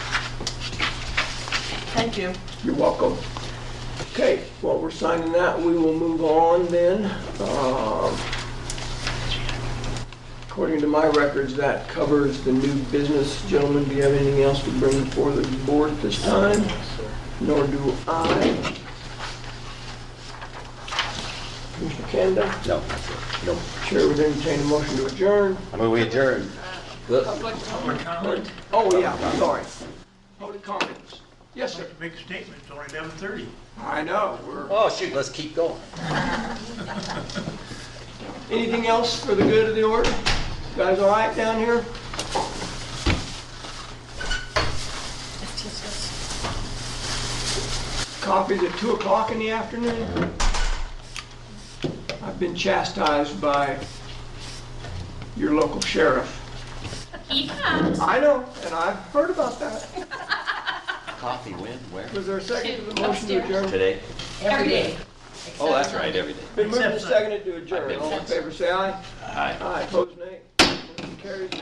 Thank you. You're welcome. Okay, while we're signing that, we will move on then. Um, According to my records, that covers the new business. Gentlemen, do you have anything else to bring before the board at this time? Nor do I. Mr. Kanda, No, no. Chair would entertain a motion to adjourn. I mean, we adjourn. Oh, yeah, sorry. Public comments. Yes, sir. Make a statement, it's only eleven thirty. I know, we're... Oh, shoot, let's keep going. Anything else for the good of the order? Guys all right down here? Coffee's at 2 o'clock in the afternoon. I've been chastised by your local sheriff. I know, and I've heard about that. Coffee when, where? Was there a second to the motion to adjourn? Today? Every day. Oh, that's right, every day. Been moved and seconded to adjourn. All in favor, say aye. All right. Aye, opposed, nay. Motion carries.